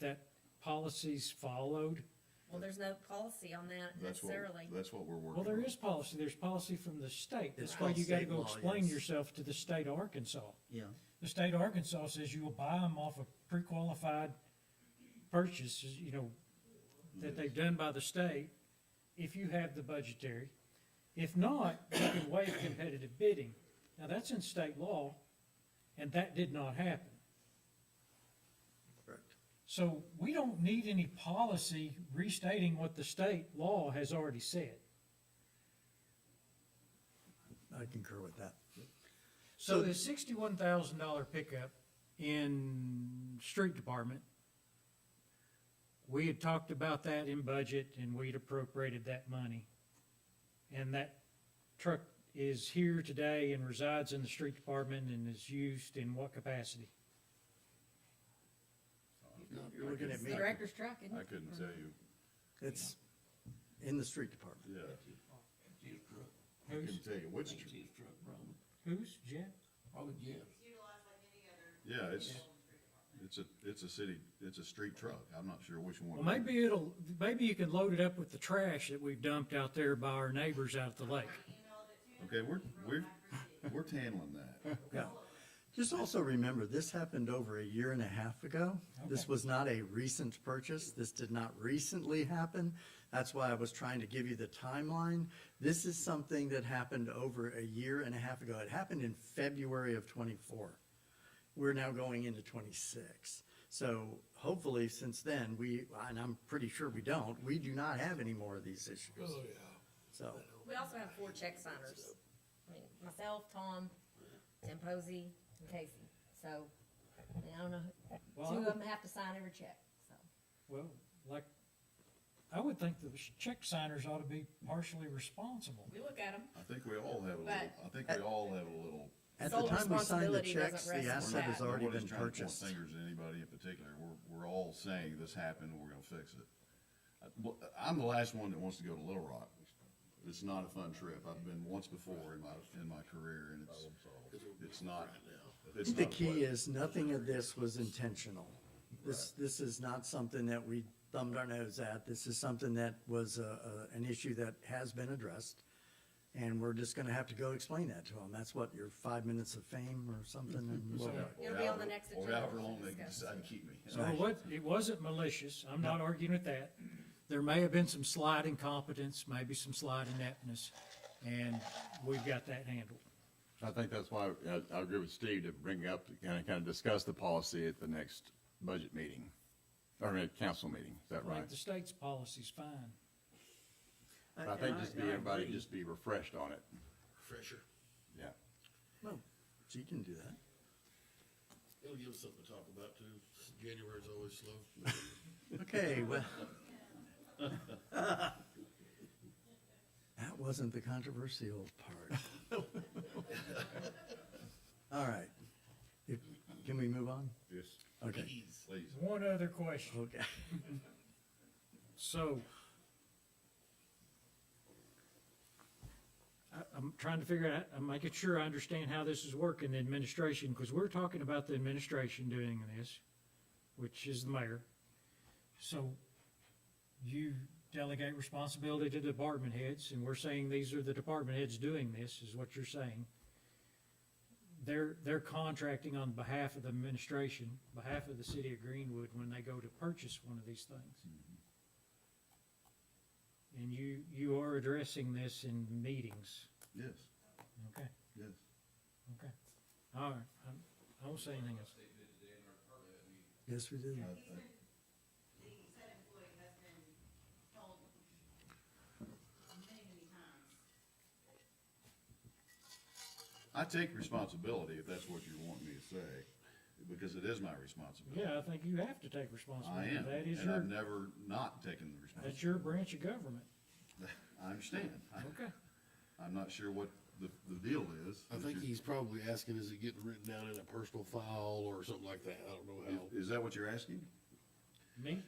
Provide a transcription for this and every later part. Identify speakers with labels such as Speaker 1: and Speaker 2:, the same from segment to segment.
Speaker 1: that policies followed?
Speaker 2: Well, there's no policy on that
Speaker 3: That's what,
Speaker 2: necessarily.
Speaker 3: that's what we're working
Speaker 1: Well,
Speaker 3: on.
Speaker 1: there is policy, there's policy from the state,
Speaker 4: It's
Speaker 1: that's why you
Speaker 4: called
Speaker 1: gotta
Speaker 4: state
Speaker 1: go
Speaker 4: law,
Speaker 1: explain
Speaker 4: yes.
Speaker 1: yourself to the state of Arkansas.
Speaker 4: Yeah,
Speaker 1: The state of Arkansas says you will buy them off of pre-qualified purchases, you know, that they've done by the state, if you have the budgetary. If not, you can waive competitive bidding. Now, that's in state law, and that did not happen.
Speaker 4: correct.
Speaker 1: So we don't need any policy restating what the state law has already said.
Speaker 4: I concur with that.
Speaker 1: So the sixty-one thousand dollar pickup in street department, we had talked about that in budget and we'd appropriated that money. And that truck is here today and resides in the street department and is used in what capacity?
Speaker 4: You're looking at
Speaker 2: It's
Speaker 4: me.
Speaker 2: the director's truck, isn't
Speaker 3: I
Speaker 2: it?
Speaker 3: couldn't tell you,
Speaker 4: It's in the street department.
Speaker 3: yeah,
Speaker 5: That's his truck,
Speaker 3: I couldn't tell you which,
Speaker 5: that's
Speaker 3: tr-
Speaker 5: his truck, probably,
Speaker 1: Who's, Jeff?
Speaker 5: probably Jeff's.
Speaker 6: utilized like any other
Speaker 3: yeah, it's, it's a, it's a city, it's a street truck, I'm not sure which one.
Speaker 1: Well, maybe it'll, maybe you can load it up with the trash that we've dumped out there by our neighbors out at the lake.
Speaker 3: Okay, we're, we're, we're handling that,
Speaker 4: Yeah. Just also remember, this happened over a year and a half ago. This was not a recent purchase. This did not recently happen. That's why I was trying to give you the timeline. This is something that happened over a year and a half ago. It happened in February of twenty-four. We're now going into twenty-six. So hopefully, since then, we, and I'm pretty sure we don't, we do not have any more of these issues.
Speaker 5: Oh, yeah.
Speaker 4: So,
Speaker 2: We also have four check signers. I mean, myself, Tom, Tim Posey, and Casey. So, I mean, I don't know,
Speaker 1: Well, I
Speaker 2: two of
Speaker 1: would-
Speaker 2: them have to sign every check, so.
Speaker 1: Well, like, I would think the check signers ought to be partially responsible.
Speaker 2: We look at them.
Speaker 3: I think we all have a little, I think we all have a little.
Speaker 4: at the
Speaker 2: Sole
Speaker 4: time we signed the
Speaker 2: responsibility doesn't rest
Speaker 4: checks, the
Speaker 2: on
Speaker 4: asset
Speaker 2: that.
Speaker 4: has already
Speaker 3: Nobody's trying
Speaker 4: been
Speaker 3: to point
Speaker 4: purchased.
Speaker 3: Fingers at anybody in particular, we're, we're all saying this happened, we're gonna fix it. I- well, I'm the last one that wants to go to Little Rock, it's not a fun trip, I've been once before in my, in my career, and it's, it's not, it's
Speaker 4: The
Speaker 3: not.
Speaker 4: key is, nothing of this was intentional. This, this is not something that we thumbed our nose at. This is something that was, uh, uh, an issue that has been addressed. And we're just gonna have to go explain that to them. That's what, your five minutes of fame or something? and we'll-
Speaker 2: It'll be on the next
Speaker 3: Or
Speaker 2: agenda
Speaker 3: however
Speaker 2: to
Speaker 3: long they
Speaker 2: discuss.
Speaker 3: decide to keep me.
Speaker 1: So it was, it wasn't malicious, I'm not arguing with that. There may have been some slight incompetence, maybe some slight ineptness, and we've got that handled.
Speaker 7: I think that's why, I, I agree with Steve to bring up, kind of, kind of discuss the policy at the next budget meeting, or at council meeting, is that right?
Speaker 1: Like the state's policy's fine.
Speaker 7: I think just be, everybody just be refreshed on it,
Speaker 5: Fresher,
Speaker 7: yeah.
Speaker 4: Well, So you can do that.
Speaker 5: it'll give us something to talk about too, January's always slow.
Speaker 4: Okay, well. That wasn't the controversial part. All right. If- Can we move on?
Speaker 3: Yes,
Speaker 4: Okay,
Speaker 3: please.
Speaker 1: One other question,
Speaker 4: okay.
Speaker 1: so. I, I'm trying to figure out, I'm making sure I understand how this is working, the administration, because we're talking about the administration doing this, which is the mayor. So you delegate responsibility to department heads, and we're saying these are the department heads doing this, is what you're saying. They're, they're contracting on behalf of the administration, behalf of the city of Greenwood, when they go to purchase one of these things. And you, you are addressing this in meetings.
Speaker 3: Yes,
Speaker 1: Okay,
Speaker 3: yes.
Speaker 1: okay. All right, I'm- I won't say anything else.
Speaker 4: Yes, we did.
Speaker 3: I- I-
Speaker 6: The said employee has been told many, many times
Speaker 3: I take responsibility, if that's what you want me to say, because it is my responsibility.
Speaker 1: Yeah, I think you have to take
Speaker 3: I
Speaker 1: responsibility.
Speaker 3: am,
Speaker 1: That is
Speaker 3: and I've
Speaker 1: your,
Speaker 3: never not taken the responsibility.
Speaker 1: that's your branch of government.
Speaker 3: I understand. I-
Speaker 1: Okay.
Speaker 3: I'm not sure what the, the deal is.
Speaker 8: I
Speaker 3: that
Speaker 8: think
Speaker 3: you're-
Speaker 8: he's probably asking, is it getting written down in a personal file or something like that? I don't know how.
Speaker 3: is- Is that what you're asking?
Speaker 1: Me?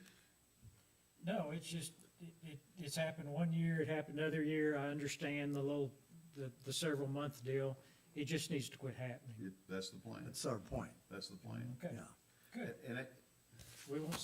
Speaker 1: No, it's just, it, it, it's happened one year, it happened another year. I understand the little, the, the several month deal. It just needs to quit happening.
Speaker 3: It- That's the plan.
Speaker 4: That's our point,
Speaker 3: That's the plan.
Speaker 1: Okay,
Speaker 4: yeah.
Speaker 1: good.
Speaker 3: And it,
Speaker 1: We won't